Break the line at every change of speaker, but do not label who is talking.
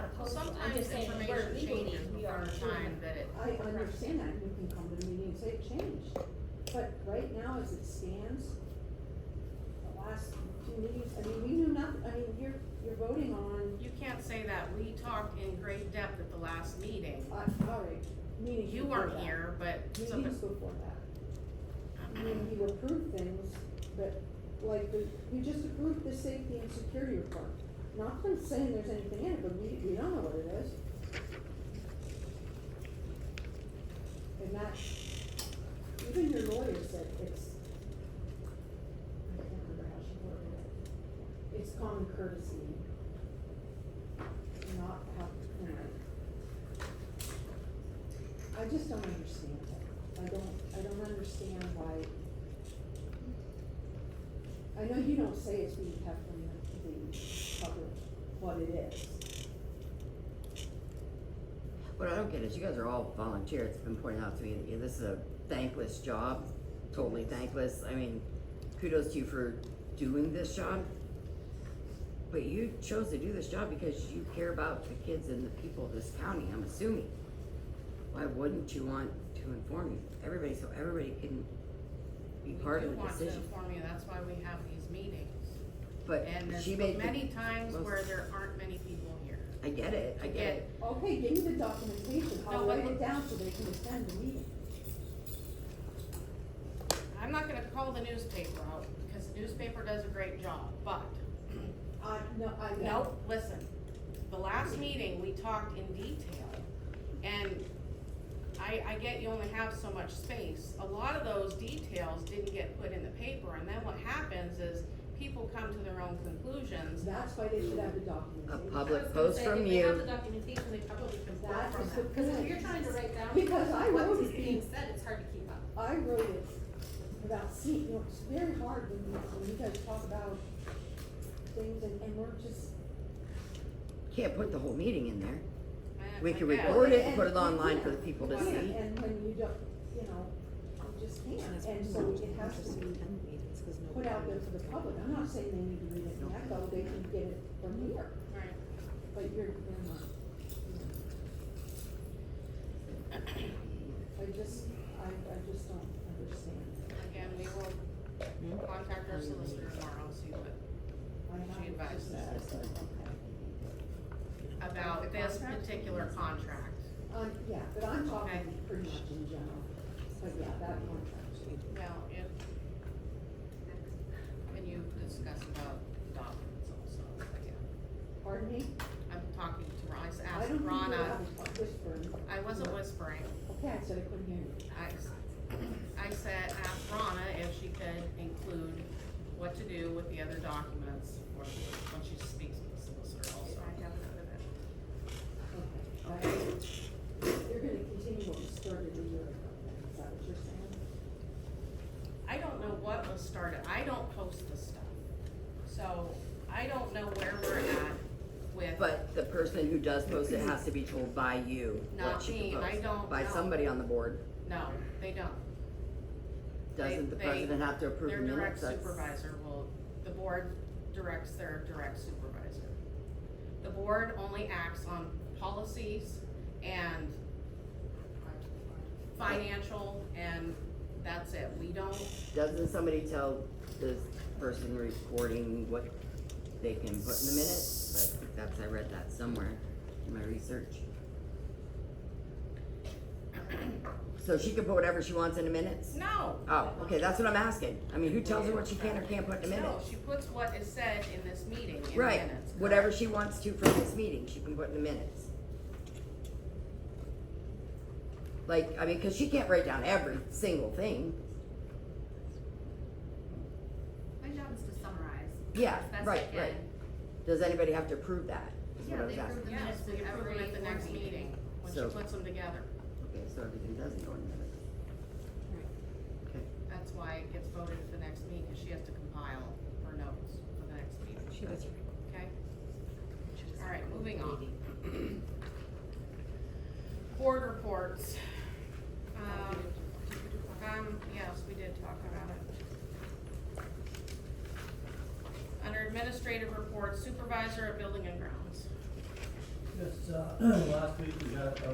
I'm just saying,
Sometimes
where
information
legally
changes
we are
before the time
doing-
that it.
I understand that, you can come to the meeting and say it changed, but right now, as it stands, the last two meetings, I mean, we knew nothing, I mean, you're, you're voting on,
You can't say that, we talked in great depth at the last meeting,
uh, all right, meetings
you
before
weren't
that.
here, but. so-
Meetings before that, I mean, you approved things, but like, the- we just approved the safety and security report. Not from saying there's anything in it, but we, we don't know what it is. And that, even your lawyer said it's, I can't remember how she worded it. It's common courtesy. Not how, you know. I just don't understand it. I don't, I don't understand why. I know you don't say it's being kept from the, the public, what it is.
What I don't get is you guys are all volunteers. It's been pointed out to me that you- this is a thankless job, totally thankless. I mean, kudos to you for doing this job. But you chose to do this job because you care about the kids and the people of this county, I'm assuming. Why wouldn't you want to inform you, everybody, so everybody can be
We
part
do
of the
want to
decision?
inform you, that's why we have these meetings.
But
And there's
she made
many
the,
times
most-
where there aren't many people here.
I get it, I get
Again,
it.
Okay, give me the documentation, I'll
No, but
write
look-
it down so they can attend the meeting.
I'm not gonna call the newspaper out, because the newspaper does a great job, but,
I, no, I know.
no, listen, the last meeting, we talked in detail, and I, I get you only have so much space, a lot of those details didn't get put in the paper, and then what happens is, people come to their own conclusions,
That's why they should have the
A
documentation.
public
I was
post
gonna say,
from
If they have
you,
the documentation, they probably can pull
That
from
is the
that, because if
point.
you're trying to write down
Because I wrote
what's
it.
being said, it's hard to keep up.
I wrote it without seeing, you know, it's very hard when you, when you guys talk about things and, and we're just.
can't put the whole meeting in there.
I-
We
I
can
get-
record it
And
and put it
you
online
can't.
for the people to
You can't,
see.
And when you don't, you know, you just can't, and so it has to be put out there to the public, I'm not saying they need to read it in Echo, they can get it from here,
Right.
but you're, you're not. I just, I, I just don't understand,
Again, we will contact our solicitor tomorrow, and see what,
I have.
She advises
that,
us.
okay.
about this particular contract.
Um, yeah, but I'm
Okay.
talking pretty much in general, but yeah, that contract.
Well, if, and you discussed about the documents also, yeah.
Pardon me?
I'm talking to Ron, I just
I
asked
don't think you're
Ronna,
out whispering.
I wasn't whispering,
Okay, I said I couldn't hear you.
I, s- I said, asked Ronna if she could include what to do with the other documents for, when she speaks with the solicitor also.
I have another bit.
Okay. I- You're gonna continue what we started a year ago, then, is that what you're saying?
I don't know what was started, I don't post this stuff, so I don't know where we're at with.
But the person who does post it has to be told by you
Not
what she
me,
can
I
post.
don't
By
know.
somebody on the board.
No, they don't.
Doesn't the
They- they-
president have to approve the
Their direct
minutes? That's-
supervisor will, the board directs their direct supervisor. The board only acts on policies and financial, and that's it. We don't,
Doesn't somebody tell this person recording what they can put in the minutes? I think that's, I read that somewhere in my research. So she can put whatever she wants in the minutes?
no.
Oh, okay, that's what I'm asking. I mean, who tells her what she can or can't put in the
No,
minutes?
she puts what is said in this meeting in minutes.
Right,
correct?
whatever she wants to from this meeting, she can put in the minutes. Like, I mean, cause she can't write down every single thing,
My job is to summarize.
yeah,
as best I
right,
can.
right. Does anybody have to approve that? Is what
Yeah,
I was
they
asking.
approve the
Yes,
minutes
we
with
approve
every
it at the next
board meeting.
meeting, when she
So-
puts them together.
Okay, so everything doesn't go in the minutes. Okay,
That's why it gets voted at the next meeting, she has to compile her notes for the next meeting,
gotcha.
okay? All right, moving on. Board reports. Um, um, yes, we did talk about it. Under administrative reports, supervisor of building and grounds.
Just, uh, last week we got a